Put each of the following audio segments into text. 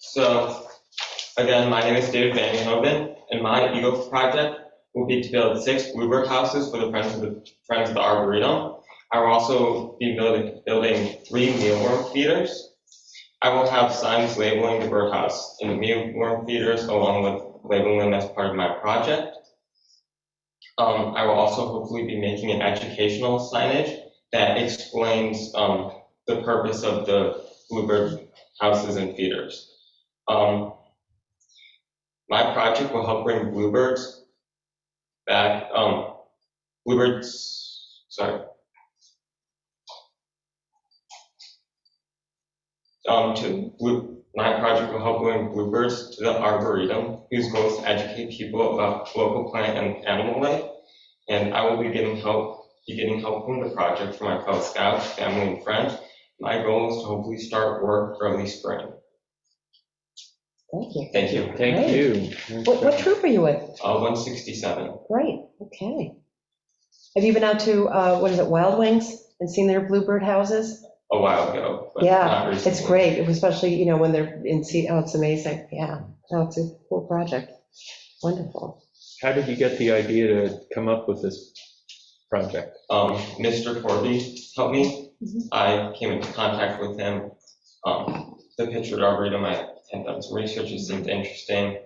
So, again, my name is David Van Hoven, and my Eagle project will be to build six bluebird houses for the Friends of the, Friends of the Arboretum. I will also be building, building three mealworm feeders. I will have signs labeling the birdhouse and the mealworm feeders along with labeling them as part of my project. Um, I will also hopefully be making an educational signage that explains, um, the purpose of the bluebird houses and feeders. Um, my project will help bring bluebirds back, um, bluebirds, sorry. Um, to, blue- my project will help bring bluebirds to the arboretum, whose goal is to educate people about local plant and animal life. And I will be getting help, be getting help from the project from my fellow scouts, family, and friends. My goal is to hopefully start work early spring. Thank you. Thank you. Thank Great. you. What, what troop are you with? Uh, 167. Great, okay. Have you been out to, uh, what is it, Wild Wings and seen their bluebird houses? a while ago, but Yeah, not recently. It's great, especially, you know, when they're in, sea- oh, it's amazing, yeah. Oh, it's a cool project, wonderful. How did you get the idea to come up with this project? Um, Mr. Corby helped me. Mhm. I came into contact with him. Um, the picture at Arboretum, I had done some research, it seemed interesting.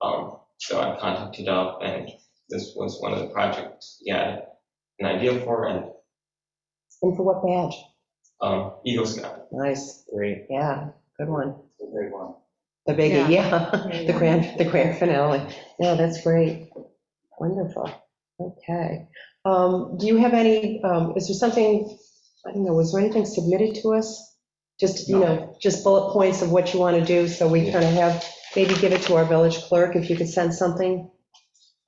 Um, so I contacted up and this was one of the projects he had an idea for and, And for what badge? um, Eagle Scout. Nice, Great. yeah, good one. Great one. The Yeah. biggie, yeah, the grand, the grand finale. No, that's great, wonderful, okay. Um, Do you have any, um, is there something, I don't know, was there anything submitted to us? Just, you know, just bullet points of what you want to do, so we Yeah. kind of have, maybe give it to our village clerk, if you could send something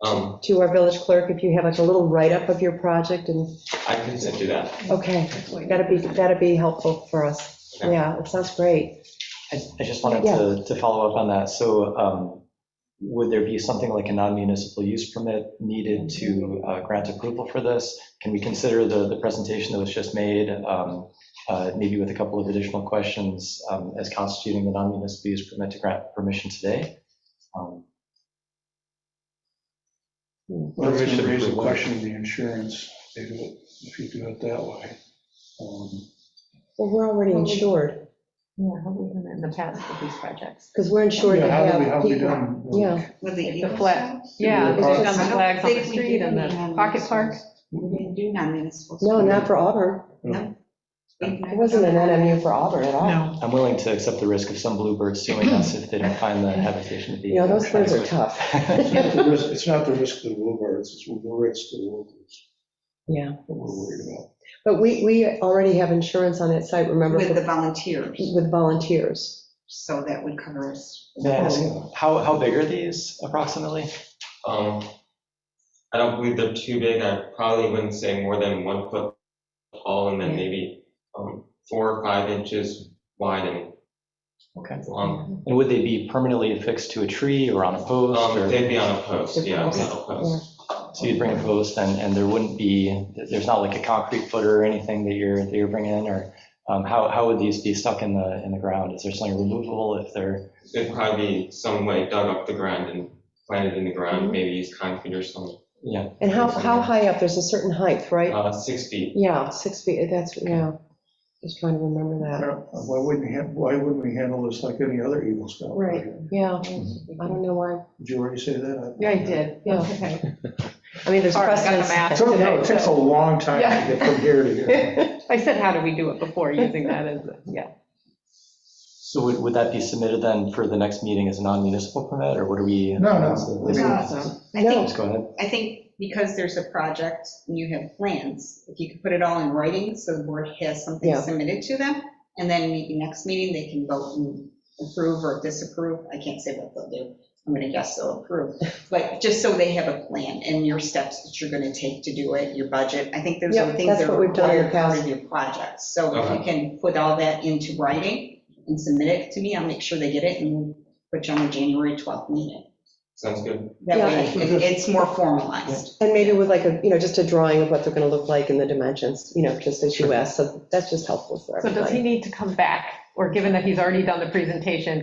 Um, to our village clerk, if you have like a little write-up of your project, and, I can send you that. okay, that'd be, that'd be helpful for us. Okay. Yeah, it sounds great. I I just wanted to, to follow up on that. So um, would there be something like a non-municipal use permit needed to uh, grant approval for this? Can we consider the, the presentation that was just made, um, uh, maybe with a couple of additional questions um, as constituting the non-municipal use permit to grant permission today? Um, Well, That's going Permission to raise for the what? question of the insurance, if it- if you do it that way. Um, Well, we're already insured. Yeah, have we done it in the past with these projects? Because we're insured yeah, to how do we- have How do we people. done? Yeah, With the The Eagle flag, Scout? yeah, Yeah. because we've done I the don't flags on the think we street did and any the on pocket municipals. park. We didn't do non-municipals. no, not for Auburn. No. We've never It wasn't an done that. NMU for Auburn at all. I'm willing to accept the risk of some bluebirds suing us if they don't find the habitation to be. You know, those birds are tough. It's not the risk- it's not the risk to the bluebirds, it's the risk to the wolverines Yeah, that we're worried about. but we, we already have insurance on that site, remember, With the for- volunteers, with volunteers. so that would cover us. May I ask, how, how big are these approximately? Um, I don't believe they're too big. I probably wouldn't say more than one foot tall and then Yeah. maybe, um, four or five inches wide and Okay. long. And would they be permanently affixed to a tree or on a post? Um, or- they'd be on a post, yeah, on a metal post. So you'd bring a post and, and there wouldn't be, there's not like a concrete footer or anything that you're, that you're bringing in? Or um, how, how would these be stuck in the, in the ground? Is there something removable if they're, It'd probably be some way dug up the ground and planted in the ground, maybe use concrete or something, yeah? And how, how high up? There's a certain height, right? uh, six feet. Yeah, six feet, that's, yeah, just trying to remember that. Why wouldn't you, ha- why wouldn't we handle this like any other Eagle Scout? Right. project? Yeah, I don't know why. Did you already say that? Yeah, I did, Yeah. yeah, okay. Oh. I mean, there's Sorry, I got the precedence. map. It's okay, it takes a long time Yeah. to get from here to here. I said, how do we do it before, using that as, a- yeah. So would, would that be submitted then for the next meeting as a non-municipal permit or what do we? No, no. Is- Uh, Awesome. I No. think, Just go ahead. I think because there's a project and you have plans, if you could put it all in writing, so the board has something Yeah. submitted to them, and then maybe next meeting, they can vote and approve or disapprove. I can't say what they'll do. I'm gonna guess they'll approve, but just so they have a plan and your steps that you're gonna take to do it, your budget. I think those are Yep, things that's that are what we've done in the required part past. of your projects. So if Okay. you can put all that into writing and submit it to me, I'll make sure they get it and put you on the January 12th meeting. Sounds good. That way, Yeah. it- it's more formalized. And maybe with like a, you know, just a drawing of what they're going to look like and the dimensions, you know, just as you asked, so that's just helpful for So everybody. does he need to come back, or given that he's already done the presentation,